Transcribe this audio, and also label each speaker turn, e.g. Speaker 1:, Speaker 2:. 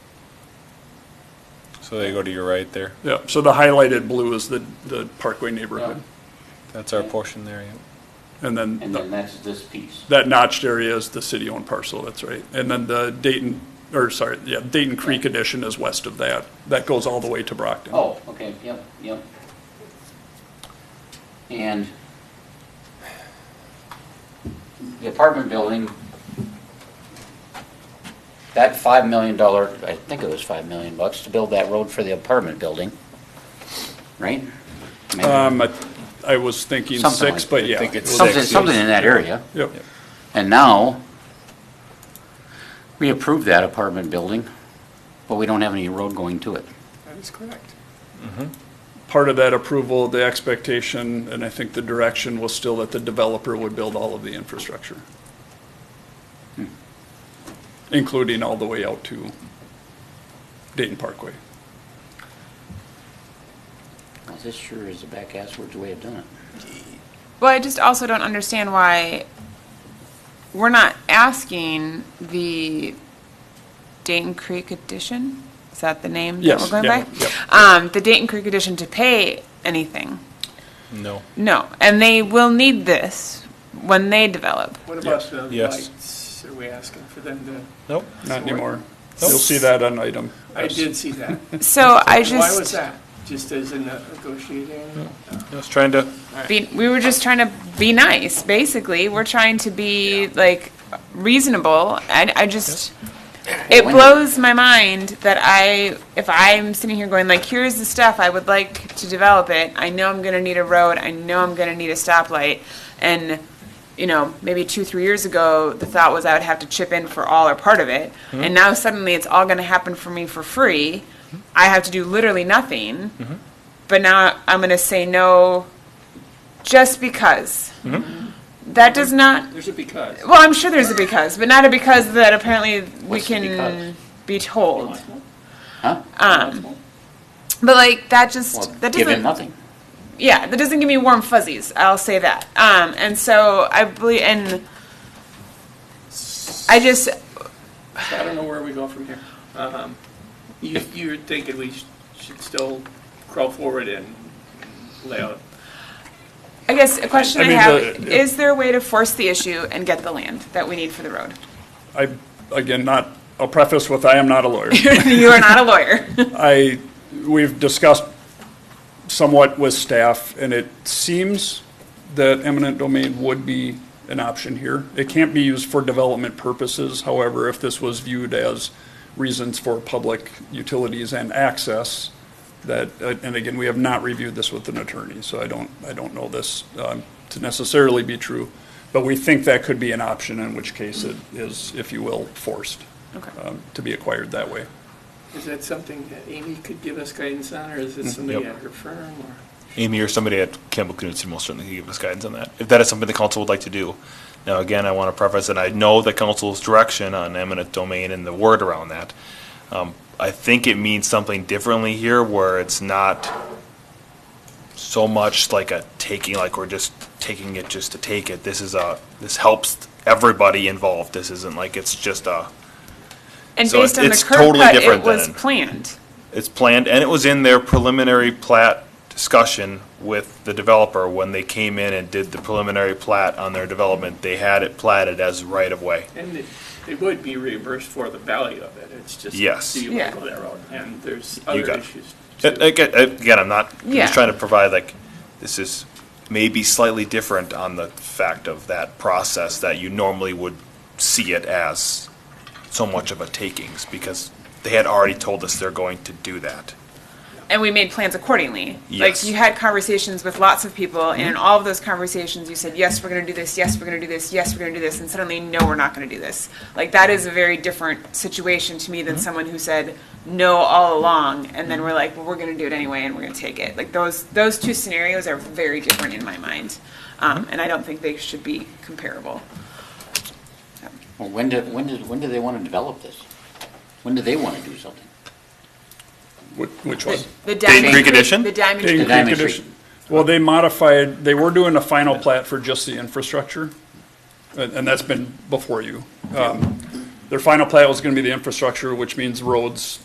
Speaker 1: So they go to your right there.
Speaker 2: Yeah, so the highlighted blue is the, the Parkway neighborhood.
Speaker 1: That's our portion there, yeah.
Speaker 2: And then
Speaker 3: And
Speaker 2: the-
Speaker 3: then that's this piece.
Speaker 2: that notched area is the city-owned parcel, that's right. And then the Dayton, or sorry, yeah, Dayton Creek addition is west of that. That goes all the way to Brockton.
Speaker 3: Oh, okay, yep, yep. And the apartment building, that five million dollar, I think it was five million bucks to build that road for the apartment building, right? Maybe.
Speaker 2: Um, I, I was thinking
Speaker 3: Something
Speaker 2: six,
Speaker 3: like-
Speaker 2: but
Speaker 1: I
Speaker 2: yeah.
Speaker 1: think it's
Speaker 2: it was-
Speaker 3: Something,
Speaker 1: six.
Speaker 3: something in that area.
Speaker 2: Yep,
Speaker 3: And now, we approved that apartment building, but we don't have any road going to it.
Speaker 4: That is correct.
Speaker 2: part of that approval, the expectation, and I think the direction was still that the developer would build all of the infrastructure.
Speaker 1: Hmm.
Speaker 2: Including all the way out to Dayton Parkway.
Speaker 3: Well, This sure is a back asswards way of doing it.
Speaker 4: Well, I just also don't understand why we're not asking the Dayton Creek Edition, is that the name that
Speaker 2: Yes,
Speaker 4: we're going
Speaker 2: yeah,
Speaker 4: by? Um, the Dayton Creek Edition to pay anything,
Speaker 1: No.
Speaker 4: no, and they will need this when they develop.
Speaker 5: What about the
Speaker 1: Yes.
Speaker 5: lights? Are we asking for them to,
Speaker 1: Nope.
Speaker 2: Not anymore.
Speaker 1: Nope.
Speaker 2: You'll see that on item.
Speaker 5: I did see that.
Speaker 4: So I just.
Speaker 5: Why was that? Just as a negotiating?
Speaker 1: I was trying to,
Speaker 4: be, we were just trying to be nice, basically. We're trying to be like reasonable. And I just, it blows my mind that I, if I'm sitting here going like, here's the stuff I would like to develop it. I know I'm going to need a road. I know I'm going to need a stoplight. And, you know, maybe two, three years ago, the thought was I would have to chip in for all or part of it. And now suddenly it's all going to happen for me for free. I have to do literally nothing. But now I'm going to say no just because. That does not.
Speaker 5: There's a because.
Speaker 4: Well, I'm sure there's a because, but not a because that apparently we
Speaker 3: What's the
Speaker 4: can
Speaker 3: because?
Speaker 4: be told.
Speaker 3: Huh?
Speaker 4: Um, but like
Speaker 3: Well,
Speaker 4: that just that
Speaker 3: give him
Speaker 4: doesn't.
Speaker 3: nothing.
Speaker 4: Yeah, that doesn't give me warm fuzzies. I'll say that. Um, and so I believe, and I just
Speaker 5: So I don't know where we go from here. Um, You, you're thinking we sh- should still crawl forward and lay out.
Speaker 4: I guess a question
Speaker 2: I
Speaker 4: I,
Speaker 2: mean,
Speaker 4: have
Speaker 2: the-
Speaker 4: is there a way to force the issue and get the land that we need for the road?
Speaker 2: I, again, not, I'll preface with, I am not a lawyer.
Speaker 4: you are not a lawyer.
Speaker 2: I, we've discussed somewhat with staff, and it seems that eminent domain would be an option here. It can't be used for development purposes, however, if this was viewed as reasons for public utilities and access, that, uh, and again, we have not reviewed this with an attorney, so I don't, I don't know this um, to necessarily be true, but we think that could be an option, in which case it is, if you will, forced
Speaker 4: okay.
Speaker 2: um, to be acquired that way.
Speaker 5: Is that something that Amy could give us guidance on, or is
Speaker 6: Mm,
Speaker 5: it somebody at her firm? or-
Speaker 6: Amy or somebody at Campbell Knutson will certainly give us guidance on that, if that is something the council would like to do. Now, again, I want to preface that I know the council's direction on eminent domain and the word around that. Um, I think it means something differently here where it's not so much like a taking, like we're just taking it just to take it. This is a, this helps everybody involved. This isn't like it's just a,
Speaker 4: And
Speaker 6: So
Speaker 4: based on the
Speaker 6: it's
Speaker 4: curb
Speaker 6: totally
Speaker 4: cut, it
Speaker 6: different
Speaker 4: was
Speaker 6: than-
Speaker 4: planned.
Speaker 6: it's planned, and it was in their preliminary plat discussion with the developer when they came in and did the preliminary plat on their development. They had it platted as right-of-way.
Speaker 5: And they- they would be reimbursed for the value of it. It's just,
Speaker 6: Yes.
Speaker 5: do you want
Speaker 4: Yeah.
Speaker 5: to go that road? And there's other
Speaker 6: got it.
Speaker 5: issues. too.
Speaker 6: A- Again, again, I'm not, I'm
Speaker 4: Yeah.
Speaker 6: just trying to provide like, this is maybe slightly different on the fact of that process that you normally would see it as so much of a takings, because they had already told us they're going to do that.
Speaker 4: and we made plans accordingly.
Speaker 6: Yes.
Speaker 4: Like you had conversations with lots of people, and in all of those conversations, you said, "Yes, we're going to do this. Yes, we're going to do this. Yes, we're going to do this." And suddenly, no, we're not going to do this. Like that is a very different situation to me than someone who said no all along, and then we're like, "Well, we're going to do it anyway, and we're going to take it." Like those those two scenarios are very different in my mind, um, and I don't think they should be comparable.
Speaker 3: Well, when do, when do, when do they want to develop this? When do they want to do something?
Speaker 2: Which- Which one?
Speaker 4: The Diamond
Speaker 6: Creek addition?
Speaker 4: The Diamond
Speaker 2: Dayton
Speaker 3: The
Speaker 2: Creek
Speaker 4: Creek.
Speaker 3: Diamond Creek.
Speaker 2: addition. Well, they modified, they were doing a final plat for just the infrastructure, and, and that's been before you. Um, Their final plat was gonna be the infrastructure, which means roads,